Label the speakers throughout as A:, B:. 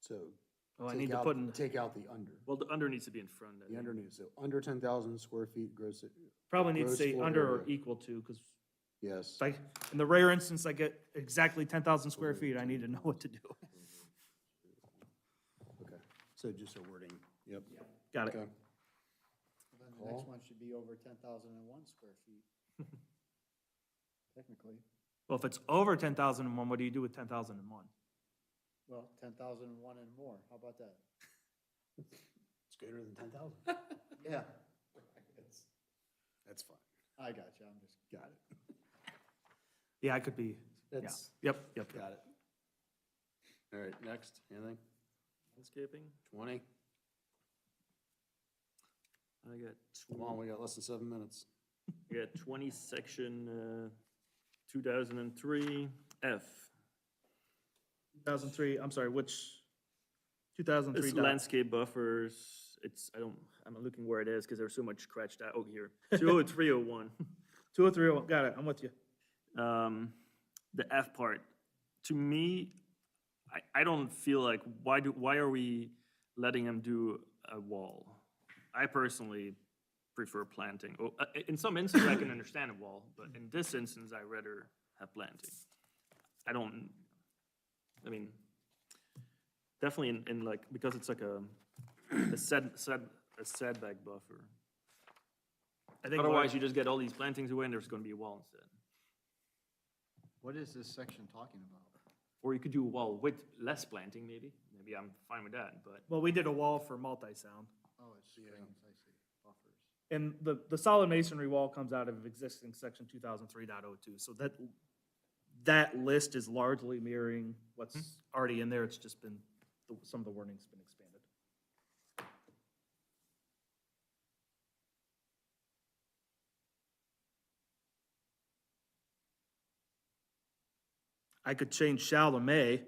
A: So.
B: Oh, I
A: take
B: need to
A: out-
B: put in,
A: Take out the under.
B: well, the under needs to be in front.
A: The
B: I think.
A: under needs, so under ten thousand square feet gross,
B: Probably needs to
A: gross
B: say
A: floor
B: under or
A: area.
B: equal to, because
A: yes.
B: like, in the rare instance I get exactly ten thousand square feet, I need to know what to do.
A: Okay, so just a wording, yep.
B: Got it.
A: Okay.
C: Then the next
A: Call.
C: one should be over ten thousand and one square feet. Technically,
B: Well, if it's over ten thousand and one, what do you do with ten thousand and one?
C: well, ten thousand and one and more, how about that?
A: It's greater than ten thousand.
C: Yeah,
A: That's fine,
C: I got you, I'm just,
A: got it.
B: Yeah, I could be, yeah,
A: That's,
B: yep, yep. yep.
A: got it. All right, next, anything?
B: Landscaping,
A: Twenty?
B: I got
A: Come on, we got less than seven minutes.
B: We got twenty, section, uh, two thousand and three, F. Two thousand three, I'm sorry, which? Two thousand three.
D: It's landscape buffers, it's, I don't, I'm not looking where it is, because there's so much scratched out, oh, here, two oh three oh one.
B: Two oh three oh, got it, I'm with you.
D: Um, the F part, to me, I, I don't feel like, why do, why are we letting them do a wall? I personally prefer planting, oh, uh, in some instances, I can understand a wall, but in this instance, I rather have planting. I don't, I mean, definitely in, in like, because it's like a, a set, set, a setback buffer.
B: I think
D: Otherwise,
B: what-
D: you just get all these plantings away and there's gonna be a wall instead.
C: what is this section talking about?
D: Or you could do a wall with less planting, maybe. Maybe I'm fine with that, but
B: Well, we did a wall for multi-sound,
C: Oh, it's screens, I see, buffers.
B: and the, the solid masonry wall comes out of existing section two thousand three point oh two. so that, that list is largely mirroring what's already in there, it's just been, the- some of the wording's been expanded. I could change shall to may,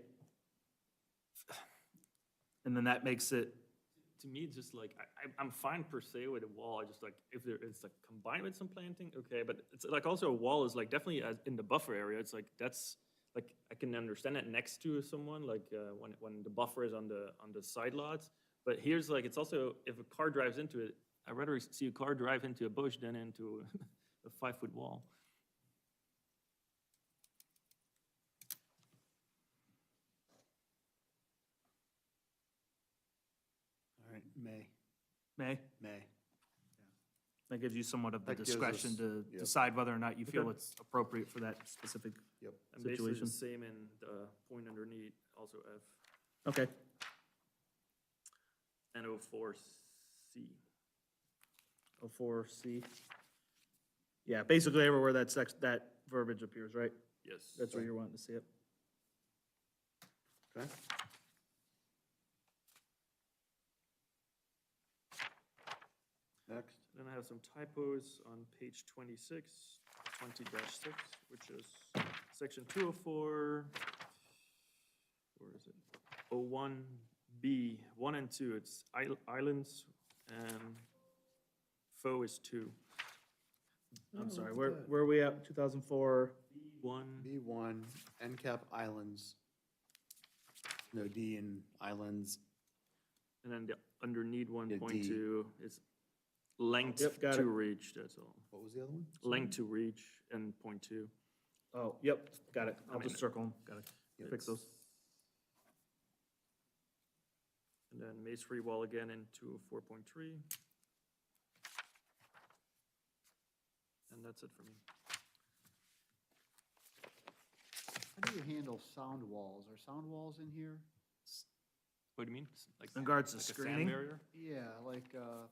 B: and then that makes it
D: to me, it's just like, I, I- I'm fine per se with a wall. I just like, if there, it's like combined with some planting, okay, but it's like also a wall is like definitely as- in the buffer area, it's like, that's, like, I can understand that next to someone, like, uh, when, when the buffer is on the, on the side lots. But here's like, it's also, if a car drives into it, I'd rather see a car drive into a bush than into a five-foot wall.
A: All right, May,
B: may.
A: May.
B: That gives you somewhat of the
A: That gives
B: discretion
A: us-
B: to
A: yep.
B: decide whether or not you feel it's appropriate for that specific.
A: Yep.
D: And basically
B: situation.
D: the same in the point underneath, also F,
B: Okay,
D: and O four C.
B: oh, four, C. Yeah, basically everywhere that sex, that verbiage appears, right?
D: Yes.
B: That's where you're wanting to see it.
A: Okay. Next,
D: Then I have some typos on page 26, 20-6, which is section 204, where is it? 01B, 1 and 2, it's isl- islands, and fo is 2.
B: I'm sorry, where, where are we at? Two thousand four?
D: 1,
A: B one, NCAP islands. No D in islands.
D: and then the underneath
A: Yeah, D.
D: 1.2 is length
B: Yep, got
D: to
B: it.
D: reach, that's all.
A: What was the other one?
D: Length to reach and point two.
B: Oh, yep, got it. I'll
D: mean-
B: just circle them. Got it. Fix those.
D: And then masonry wall again in two four point three. And that's it for me.
C: How do you handle sound walls, are sound walls in here?
D: What do you mean? S- Like
B: In regards to
D: like a sand
B: screening?
D: barrier?
C: Yeah, like, uh,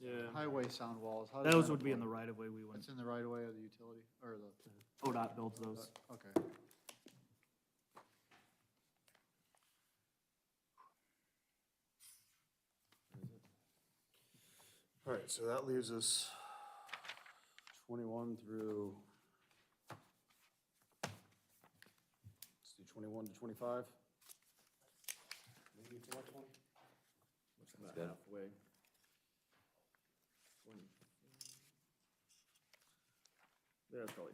D: Yeah,
C: highway sound walls, how does
B: Those
C: that
B: would be in the
C: apply?
B: right of way we went.
C: That's in the right of way of the utility, or the,
B: ODOT builds those.
C: okay.
A: All right, so that leaves us twenty-one through. Let's do twenty-one to twenty-five. Maybe it's the next one? About halfway.
D: that's probably